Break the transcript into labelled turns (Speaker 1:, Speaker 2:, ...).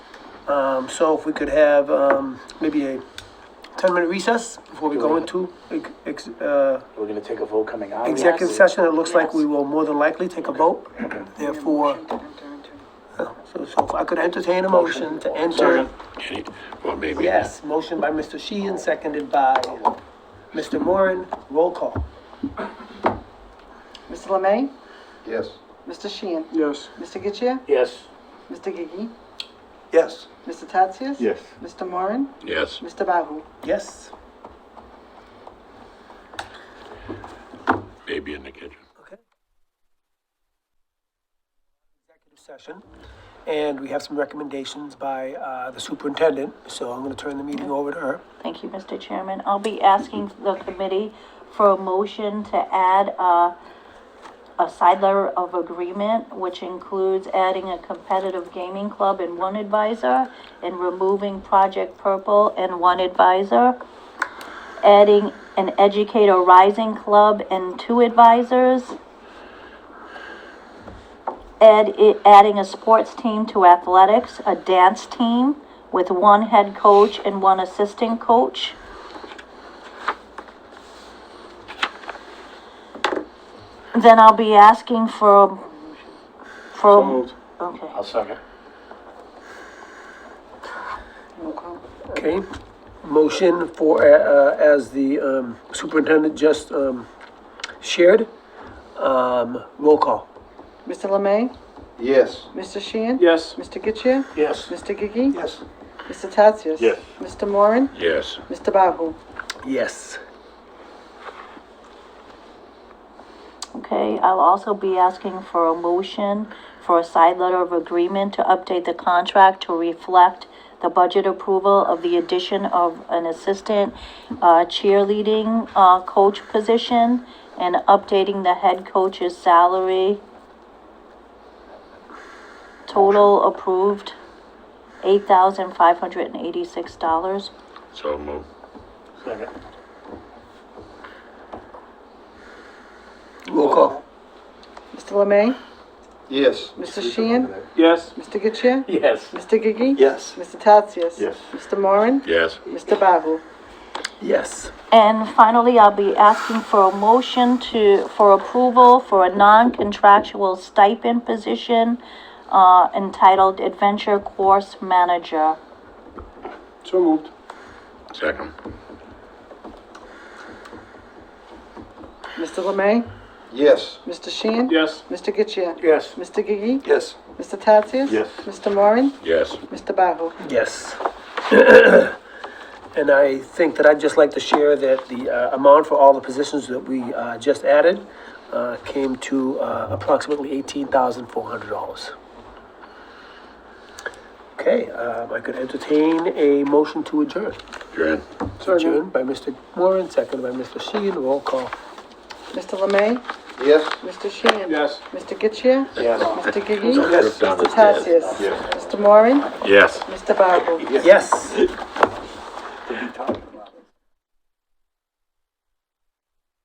Speaker 1: Um, so if we could have, um, maybe a ten-minute recess before we go into ex- ex, uh,
Speaker 2: We're gonna take a vote coming out.
Speaker 1: executive
Speaker 2: Yes.
Speaker 1: session, it looks like we will more than likely take a vote. Therefore, so, so if I could entertain a motion to enter.
Speaker 3: Any, well, maybe.
Speaker 1: Yes, motion by Mr. Sheehan, seconded by Mr. Moran, roll call.
Speaker 4: Mr. Lemay?
Speaker 5: Yes.
Speaker 4: Mr. Sheehan?
Speaker 1: Yes.
Speaker 4: Mr. Getchia?
Speaker 2: Yes,
Speaker 4: Mr. Gigi?
Speaker 5: Yes.
Speaker 4: Mr. Tatsias?
Speaker 5: Yes.
Speaker 4: Mr. Moran?
Speaker 3: Yes,
Speaker 4: Mr. Bahu?
Speaker 1: Yes.
Speaker 3: maybe in the kitchen.
Speaker 1: Okay. Executive session, and we have some recommendations by uh, the superintendent, so I'm going to turn the meeting over to her.
Speaker 6: Thank you, Mr. Chairman. I'll be asking the committee for a motion to add a, a side letter of agreement, which includes adding a competitive gaming club and one advisor, and removing Project Purple and one advisor, adding an Educator Rising Club and two advisors, add, adding a sports team to athletics, a dance team with one head coach and one assistant coach. Then I'll be asking for, for, okay.
Speaker 2: I'll second.
Speaker 1: Okay, motion for, uh, uh, as the um, superintendent just um, shared, Um, roll call.
Speaker 4: Mr. Lemay?
Speaker 5: Yes.
Speaker 4: Mr. Sheehan?
Speaker 2: Yes.
Speaker 4: Mr. Getchia?
Speaker 2: Yes.
Speaker 4: Mr. Gigi?
Speaker 5: Yes.
Speaker 4: Mr. Tatsias?
Speaker 2: Yes.
Speaker 4: Mr. Moran?
Speaker 3: Yes,
Speaker 4: Mr. Bahu?
Speaker 1: Yes.
Speaker 6: Okay, I'll also be asking for a motion for a side letter of agreement to update the contract to reflect the budget approval of the addition of an assistant uh, cheerleading uh, coach position and updating the head coach's salary. Total approved, eight thousand five hundred and eighty-six dollars.
Speaker 3: so move.
Speaker 2: Second.
Speaker 1: Roll call.
Speaker 4: Mr. Lemay?
Speaker 5: Yes.
Speaker 4: Mr. Sheehan?
Speaker 2: Yes.
Speaker 4: Mr. Getchia?
Speaker 2: Yes.
Speaker 4: Mr. Gigi?
Speaker 5: Yes.
Speaker 4: Mr. Tatsias?
Speaker 5: Yes.
Speaker 4: Mr. Moran?
Speaker 3: Yes,
Speaker 4: Mr. Bahu?
Speaker 1: Yes.
Speaker 6: And finally, I'll be asking for a motion to, for approval for a non-contractual stipend position uh, entitled Adventure Course Manager.
Speaker 2: So moved.
Speaker 3: second.
Speaker 4: Mr. Lemay?
Speaker 5: Yes.
Speaker 4: Mr. Sheehan?
Speaker 2: Yes.
Speaker 4: Mr. Getchia?
Speaker 2: Yes.
Speaker 4: Mr. Gigi?
Speaker 5: Yes.
Speaker 4: Mr. Tatsias?
Speaker 5: Yes.
Speaker 4: Mr. Moran?
Speaker 3: Yes,
Speaker 4: Mr. Bahu?
Speaker 1: Yes. And I think that I'd just like to share that the uh, amount for all the positions that we uh, just added uh, came to uh, approximately $18,400. Okay, um, I could entertain a motion to adjourn.
Speaker 3: Adjourn.
Speaker 1: Adjourned by Mr. Moran, seconded by Mr. Sheehan, roll call.
Speaker 4: Mr. Lemay?
Speaker 5: Yes.
Speaker 4: Mr. Sheehan?
Speaker 2: Yes.
Speaker 4: Mr. Getchia?
Speaker 2: Yes.
Speaker 4: Mr. Gigi?
Speaker 3: Don't trip down the
Speaker 4: Mr.
Speaker 3: stairs.
Speaker 4: Tatsias? Mr. Moran?
Speaker 3: Yes.
Speaker 4: Mr. Bahu?
Speaker 1: Yes.